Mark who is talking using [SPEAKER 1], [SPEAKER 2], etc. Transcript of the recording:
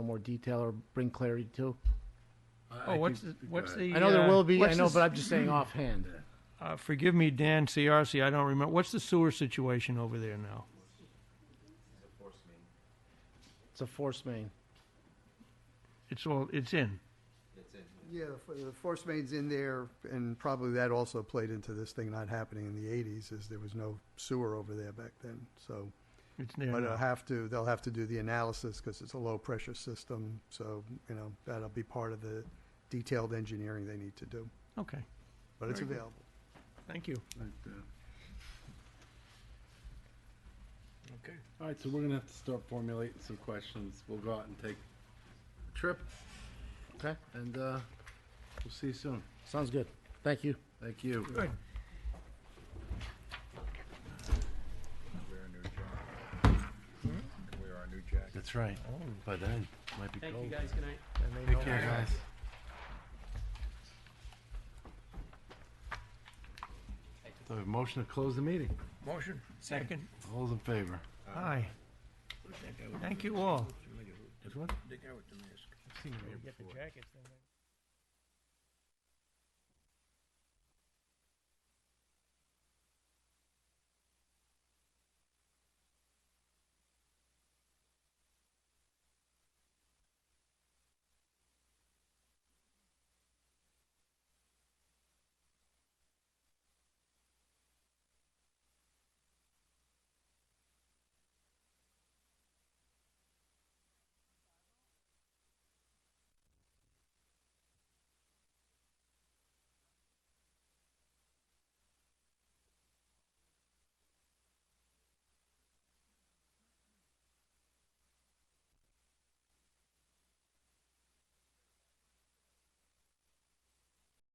[SPEAKER 1] more detail or bring clarity to?
[SPEAKER 2] Oh, what's, the- what's the?
[SPEAKER 1] I know there
[SPEAKER 2] uh,
[SPEAKER 1] will be, I
[SPEAKER 2] what's
[SPEAKER 1] know,
[SPEAKER 2] the-
[SPEAKER 1] but I'm just saying offhand.
[SPEAKER 2] uh, Forgive me, Dan, CRC, I don't remember. What's the sewer situation over there now?
[SPEAKER 1] It's a force main.
[SPEAKER 2] It's all, it's in.
[SPEAKER 3] Yeah, the fo- the force main's in there, and probably that also played into this thing not happening in the eighties, is there was no sewer over there back then, so.
[SPEAKER 2] It's there
[SPEAKER 3] But uh,
[SPEAKER 2] now.
[SPEAKER 3] I'll have to, they'll have to do the analysis, because it's a low-pressure system, so, you know, that'll be part of the detailed engineering they need to do,
[SPEAKER 2] Okay,
[SPEAKER 3] but it's
[SPEAKER 4] Very good.
[SPEAKER 3] available.
[SPEAKER 2] thank you.
[SPEAKER 5] uh,
[SPEAKER 4] Okay.
[SPEAKER 5] All right, so we're gonna have to start formulating some questions. We'll go out and take a trip. Okay. And, uh, we'll see you soon.
[SPEAKER 1] Sounds good. Thank you.
[SPEAKER 5] Thank you.
[SPEAKER 2] Good.
[SPEAKER 4] Wear a new jacket. Wear our new jacket.
[SPEAKER 5] Mm-hmm. That's right. By then, might be
[SPEAKER 6] Thank you, guys. Good night.
[SPEAKER 5] Take care, guys. So, motion to close the meeting.
[SPEAKER 2] Motion. Second.
[SPEAKER 5] All those in favor?
[SPEAKER 2] Aye. Thank you all.
[SPEAKER 5] Which one?
[SPEAKER 4] The guy with the mask.
[SPEAKER 5] I've seen him here
[SPEAKER 2] Get the
[SPEAKER 5] before.
[SPEAKER 2] jackets, then.